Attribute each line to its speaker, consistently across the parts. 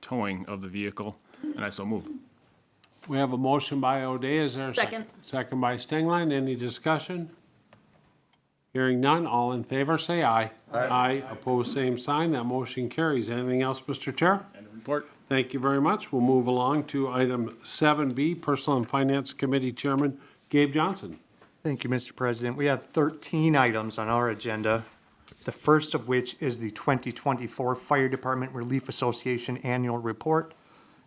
Speaker 1: towing of the vehicle, and I so move.
Speaker 2: We have a motion by O'Day, is there a second?
Speaker 3: Second.
Speaker 2: Second by Stengline, any discussion? Hearing none, all in favor, say aye. Aye. Opposed, same sign, that motion carries. Anything else, Mr. Chair?
Speaker 1: End of report.
Speaker 2: Thank you very much. We'll move along to item seven B, Personal and Finance Committee Chairman Gabe Johnson.
Speaker 4: Thank you, Mr. President. We have 13 items on our agenda, the first of which is the 2024 Fire Department Relief Association Annual Report,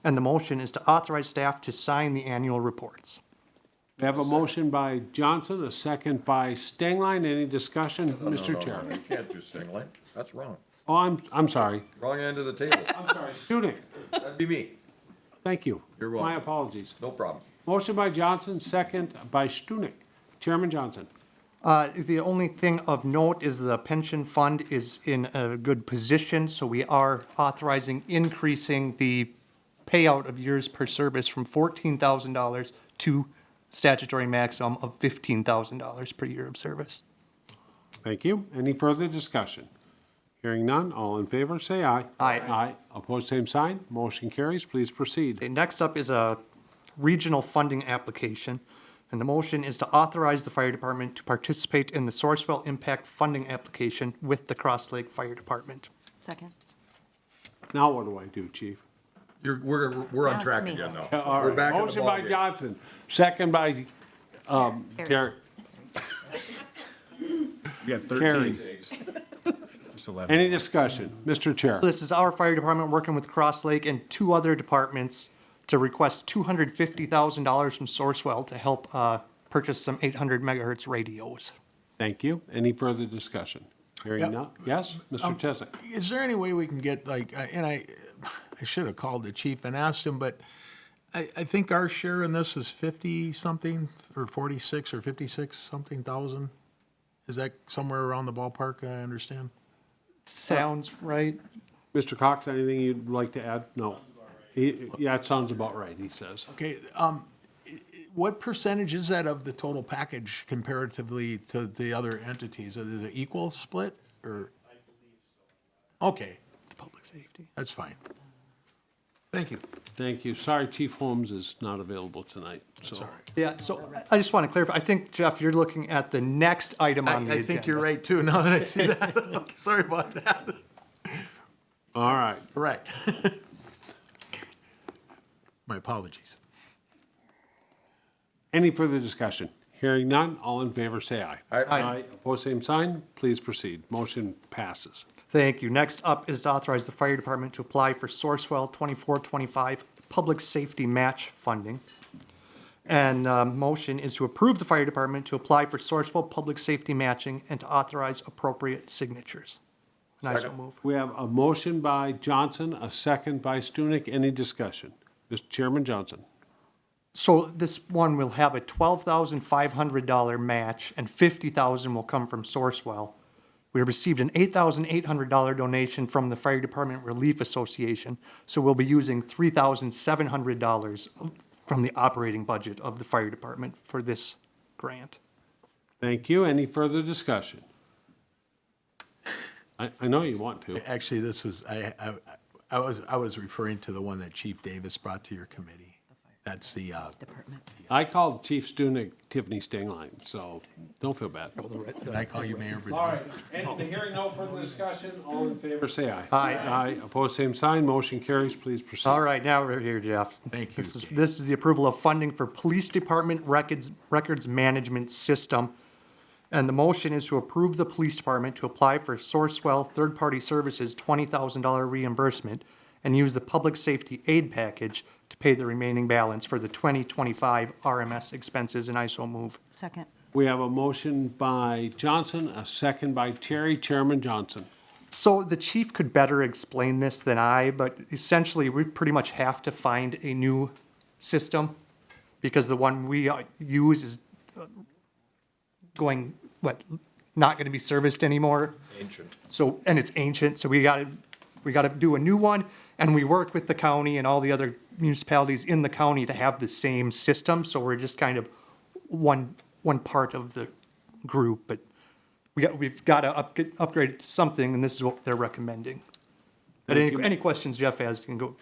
Speaker 4: and the motion is to authorize staff to sign the annual reports.
Speaker 2: We have a motion by Johnson, a second by Stengline, any discussion, Mr. Chair?
Speaker 5: Oh, You can't do singling. That's wrong.
Speaker 2: Oh, I'm, I'm sorry.
Speaker 5: Wrong end of the table.
Speaker 2: I'm sorry. Shooting,
Speaker 5: That'd be me.
Speaker 2: thank you.
Speaker 5: You're welcome.
Speaker 2: My apologies.
Speaker 5: No problem.
Speaker 2: Motion by Johnson, second by Stunek. Chairman Johnson.
Speaker 4: Uh, The only thing of note is the pension fund is in a good position, so we are authorizing increasing the payout of years per service from $14,000 to statutory maximum of $15,000 per year of service.
Speaker 2: Thank you. Any further discussion? Hearing none, all in favor, say aye.
Speaker 4: Aye.
Speaker 2: Aye. Opposed, same sign. Motion carries. Please proceed.
Speaker 4: Okay, next up is a regional funding application. And the motion is to authorize the fire department to participate in the Sourcewell Impact Funding Application with the Cross Lake Fire Department.
Speaker 3: Second.
Speaker 2: Now what do I do, Chief?
Speaker 5: You're, we're, we're on
Speaker 3: Now it's
Speaker 5: track
Speaker 3: me.
Speaker 5: again now.
Speaker 2: All
Speaker 5: We're
Speaker 2: right.
Speaker 5: back in the
Speaker 2: Motion by
Speaker 5: ballgame.
Speaker 2: Johnson, second by um, Terry.
Speaker 1: We got
Speaker 2: Carried.
Speaker 1: thirteen. It's eleven.
Speaker 2: Any discussion? Mr. Chair.
Speaker 4: This is our fire department working with Cross Lake and two other departments to request $250,000 from Sourcewell to help uh, purchase some 800 megahertz radios.
Speaker 2: Thank you. Any further discussion? Hearing
Speaker 6: Yep.
Speaker 2: none. Yes,
Speaker 5: Um,
Speaker 2: Mr. Cheswick?
Speaker 6: Is there any way we can get like, I- and I, I should have called the chief and asked him, but I, I think our share in this is fifty something or forty-six or fifty-six something thousand. Is that somewhere around the ballpark? I understand.
Speaker 4: Sounds right?
Speaker 2: Mr. Cox, anything you'd like to add? No. He- Yeah, it sounds about right, he says.
Speaker 6: Okay, um, i- i- what percentage is that of the total package comparatively to the other entities? Is it equal split or? Okay,
Speaker 4: Public safety.
Speaker 6: that's fine. Thank you.
Speaker 2: Thank you. Sorry, Chief Holmes is not available tonight, so.
Speaker 6: Sorry.
Speaker 4: Yeah, so I- I just want to clarify, I think, Jeff, you're looking at the next item on the
Speaker 6: I, I
Speaker 4: agenda.
Speaker 6: think you're right too, now that I see that. Okay, Sorry about that.
Speaker 2: All right.
Speaker 6: Correct. My apologies.
Speaker 2: Any further discussion? Hearing none, all in favor, say aye.
Speaker 5: Aye. Aye.
Speaker 2: Opposed, same sign. Please proceed. Motion passes.
Speaker 4: Thank you. Next up is to authorize the fire department to apply for Sourcewell 2425 Public Safety Match Funding. And uh, motion is to approve the fire department to apply for Sourcewell Public Safety Matching and to authorize appropriate signatures. And I so move.
Speaker 2: We have a motion by Johnson, a second by Stunek. Any discussion? Mr. Chairman Johnson.
Speaker 4: So this one will have a $12,500 match and $50,000 will come from Sourcewell. We received an $8,800 donation from the Fire Department Relief Association, so we'll be using $3,700 from the operating budget of the fire department for this grant.
Speaker 2: Thank you. Any further discussion? I, I know you want to.
Speaker 6: Actually, this was, I, I, I was, I was referring to the one that Chief Davis brought to your committee. That's the, uh,
Speaker 3: Department.
Speaker 2: I called Chief Stunek Tiffany Stingline, so don't feel bad.
Speaker 6: did I call you Mayor?
Speaker 2: All right, and the hearing no further discussion, all in favor, say aye.
Speaker 4: Aye.
Speaker 2: Aye, opposed, same sign, motion carries, please proceed.
Speaker 4: All right, now we're here, Jeff.
Speaker 6: Thank you,
Speaker 4: This is,
Speaker 6: Dave.
Speaker 4: this is the approval of funding for Police Department Records, Records Management System. And the motion is to approve the Police Department to apply for Sourcewell Third Party Services twenty thousand dollar reimbursement and use the Public Safety Aid Package to pay the remaining balance for the twenty twenty-five RMS expenses, and I so move.
Speaker 3: Second.
Speaker 2: We have a motion by Johnson, a second by Terry, Chairman Johnson.
Speaker 4: So the chief could better explain this than I, but essentially, we pretty much have to find a new system because the one we uh, use is uh, going, what, not going to be serviced anymore.
Speaker 5: Ancient.
Speaker 4: So, and it's ancient, so we got to, we got to do a new one. And we work with the county and all the other municipalities in the county to have the same system. So we're just kind of one, one part of the group, but we got, we've got to upgrade, upgrade it to something, and this is what they're recommending. But any, any questions Jeff has can go,